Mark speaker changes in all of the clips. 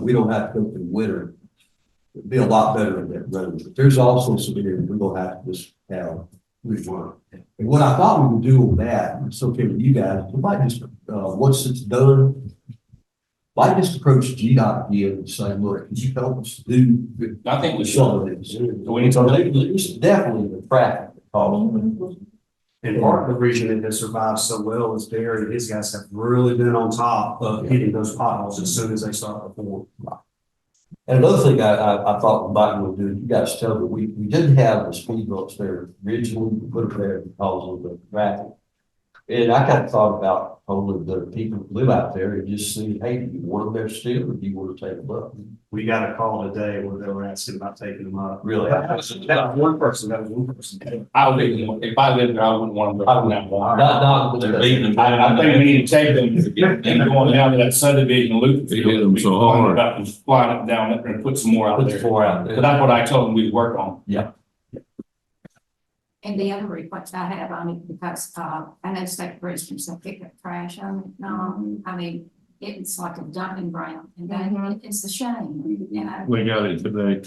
Speaker 1: we don't have to go through winter. It'd be a lot better in that road, but there's also some areas we're gonna have to just have rework. And what I thought we would do on that, and it's okay with you guys, we might just, uh, once it's done, might just approach GDOT again and say, look, could you help us do
Speaker 2: I think we should.
Speaker 1: some of this?
Speaker 2: So we need to-
Speaker 1: It's definitely the traffic problem.
Speaker 3: And part of the reason it has survived so well is Barry and his guys have really been on top of hitting those potholes as soon as they start to form.
Speaker 1: And another thing I, I, I thought Mike would do, you guys tell me, we, we didn't have the speed bumps there originally, we put them there because of the traffic. And I kind of thought about only the people who live out there and just see, hey, do you want them there still, or do you want to take them up?
Speaker 3: We got a call today where they were asking about taking them up.
Speaker 1: Really, I-
Speaker 3: That was that was one person, that was one person.
Speaker 2: I wouldn't, if I lived there, I wouldn't want them to.
Speaker 1: I would not, not with
Speaker 4: They're
Speaker 1: the,
Speaker 4: leaving.
Speaker 2: I, I think we need to take them, and going down to that subdivision loop.
Speaker 4: They hit them so hard.
Speaker 2: About them flying up down there and put some more out
Speaker 1: with the
Speaker 2: there.
Speaker 1: four out
Speaker 2: But
Speaker 1: there.
Speaker 2: that's what I told them we'd work on.
Speaker 5: And the other request I have on it, because, uh, I know state prisons, they pick up trash on it, no, I mean, it's like a dumping ground, and that, it's a shame, you know,
Speaker 4: We got it today.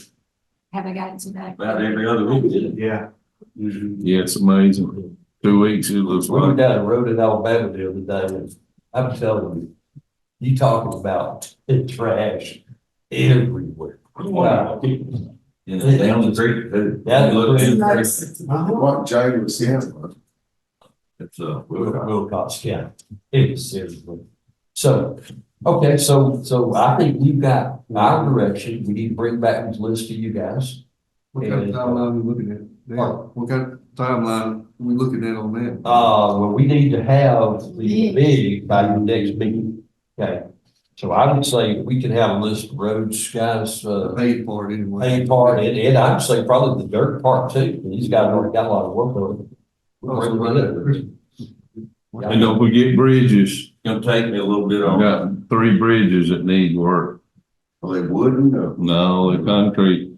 Speaker 5: have I got it today?
Speaker 4: About every other week.
Speaker 3: Yeah.
Speaker 6: Mm-hmm.
Speaker 4: Yeah, it's amazing. Two weeks, it looks
Speaker 1: We were
Speaker 4: like.
Speaker 1: down the road in Alabama the other day, and I'm telling you, you talking about trash everywhere.
Speaker 2: We want people.
Speaker 1: And down the
Speaker 4: street.
Speaker 1: That looks-
Speaker 3: Uh-huh.
Speaker 6: What Jay was saying was,
Speaker 4: It's, uh,
Speaker 1: Will, Wilcox County, it is seriously. So, okay, so, so I think we've got our direction, we need to bring back this list to you guys. uh,
Speaker 6: what kind of timeline we looking at? now? What kind of timeline we looking at on that?
Speaker 1: Uh, well, we need to have the bid by the next meeting, okay? So I would say we can have a list of roads, guys, uh,
Speaker 6: Paid for it anyway.
Speaker 1: main part, and, and I'd say probably the dirt part too, because these guys already got a lot of work on it.
Speaker 6: Also, right there.
Speaker 4: And don't forget bridges.
Speaker 7: Gonna take me a little bit
Speaker 4: I've
Speaker 7: on.
Speaker 4: got three bridges that need work.
Speaker 6: Well, they wouldn't, uh,
Speaker 4: No, the concrete,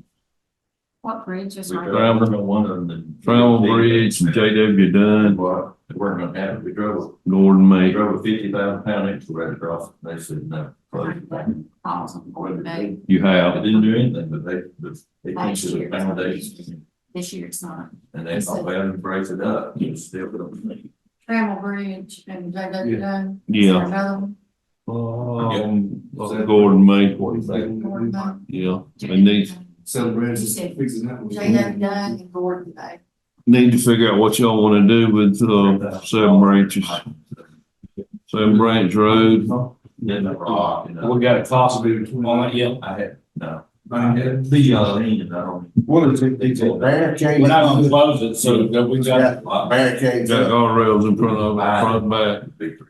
Speaker 5: What bridge is
Speaker 7: We
Speaker 5: right?
Speaker 4: Right.
Speaker 7: drove on one of them.
Speaker 4: Trammell Bridge, and JW Dunn,
Speaker 7: Well, they weren't gonna have it. We drove,
Speaker 4: Gordon
Speaker 7: we
Speaker 4: May.
Speaker 7: drove a fifty thousand pound extra right across. They said no. close it down.
Speaker 5: Falls on Gordon Bay,
Speaker 4: You
Speaker 7: They
Speaker 4: have.
Speaker 7: didn't do anything, but they, but they
Speaker 5: Last
Speaker 7: fixed the
Speaker 5: year.
Speaker 7: foundation
Speaker 5: this year it's not.
Speaker 7: and they thought they had to break it up. You still don't.
Speaker 5: Trammell Bridge and J W Dunn.
Speaker 4: Yeah.
Speaker 5: Another one,
Speaker 4: Um, Gordon May,
Speaker 5: Gordon Bay.
Speaker 4: yeah. They need,
Speaker 6: celebrating, fixing that.
Speaker 5: J W Dunn and Gordon Bay.
Speaker 4: need to figure out what y'all wanna do with, uh, seven branches. Seven Branch Road.
Speaker 7: Then the rock, you know.
Speaker 2: We got a cost on it, yeah.
Speaker 7: I had, no.
Speaker 6: I had-
Speaker 7: The, uh, lean, I don't.
Speaker 6: What is it, these
Speaker 2: We're not gonna
Speaker 6: barricades?
Speaker 2: close it, so that we got,
Speaker 6: Barricades.
Speaker 4: Got guardrails in front of, it, front and back.
Speaker 7: Big three.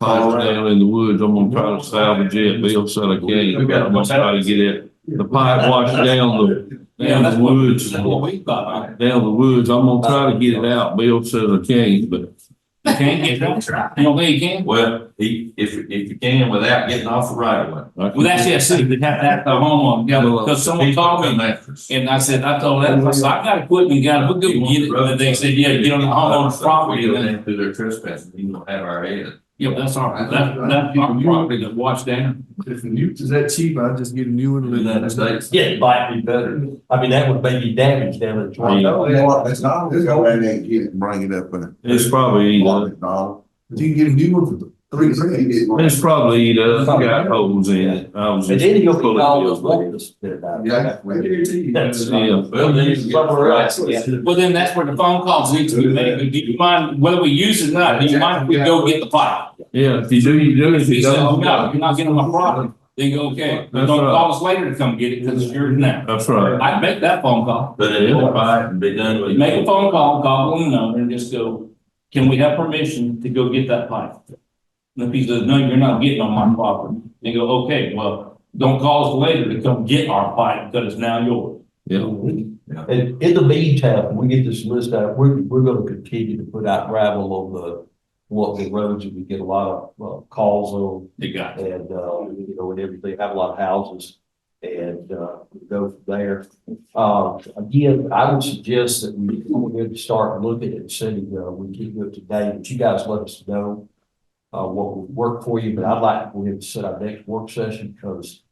Speaker 4: Pipe down in the woods, I'm gonna try to salvage it, Bill said I can't, I'm gonna try to get it, the pipe washed down the,
Speaker 2: yeah,
Speaker 4: down
Speaker 2: that's
Speaker 4: the
Speaker 2: what,
Speaker 4: woods.
Speaker 2: that's what
Speaker 4: Down
Speaker 2: we thought.
Speaker 4: the woods, I'm gonna try to get it out, Bill says I can't, but
Speaker 2: You can't get that, you don't think you can?
Speaker 7: Well, he, if, if you can without getting off the right of way.
Speaker 4: I
Speaker 2: Well, that's it, see, they have, that's the homeowner, yeah, because someone called me. And I said, I told that person, I got equipment, got, we'll go get it, and they said, yeah, get on the homeowner's property,
Speaker 7: We
Speaker 2: and
Speaker 7: go
Speaker 2: then,
Speaker 7: down through their trespassing, you don't have our head.
Speaker 2: yeah, that's all right, that, that's my property to watch down.
Speaker 6: If the new, is that cheap, I'd just get a new one.
Speaker 7: United States.
Speaker 1: Yeah, it might be better, I mean, that would maybe damage down at the.
Speaker 4: I know.
Speaker 6: That's not. Go in there and get it.
Speaker 8: bring it up in
Speaker 4: It's probably eat
Speaker 8: a
Speaker 4: up,
Speaker 8: dollar.
Speaker 6: You can get a new one for three grand.
Speaker 4: it's probably eat up, got holes in it, I was
Speaker 1: And
Speaker 4: just.
Speaker 1: then you'll be
Speaker 4: pulling
Speaker 1: all
Speaker 4: Bill's
Speaker 1: those
Speaker 4: leg.
Speaker 1: walkers that about.
Speaker 6: Yeah, I guarantee you.
Speaker 1: That's-
Speaker 4: Yeah,
Speaker 7: Well, then you can get
Speaker 1: Somewhere
Speaker 7: right.
Speaker 1: else, yeah.
Speaker 2: Well, then that's where the phone calls need to be made, do you mind, whether we use it or not, do you mind if we go get the pipe?
Speaker 4: yeah, if you do, you do, if
Speaker 2: He
Speaker 4: you
Speaker 2: said, no,
Speaker 4: don't.
Speaker 2: you're not getting my property, they go, okay, but don't call us later to come get it, because it's yours now.
Speaker 4: That's right,
Speaker 2: I'd make that phone call,
Speaker 7: But it'll buy it and be done with. it.
Speaker 2: make a phone call, call them number and just go, can we have permission to go get that pipe? And if he says, no, you're not getting on my property, they go, okay, well, don't call us later to come get our pipe, because it's now yours.
Speaker 4: yeah,
Speaker 1: And in the meantime, we get this list out, we're, we're gonna continue to put out gravel on the, what the roads, and we get a lot of, uh, calls on.
Speaker 2: They got it.
Speaker 1: and, uh, you know, and everything, have a lot of houses. And, uh, go from there. Uh, again, I would suggest that we, we would start looking at sending, uh, we keep it today, but you guys let us know. Uh, what would work for you, but I'd like, to go ahead and set our next work session, because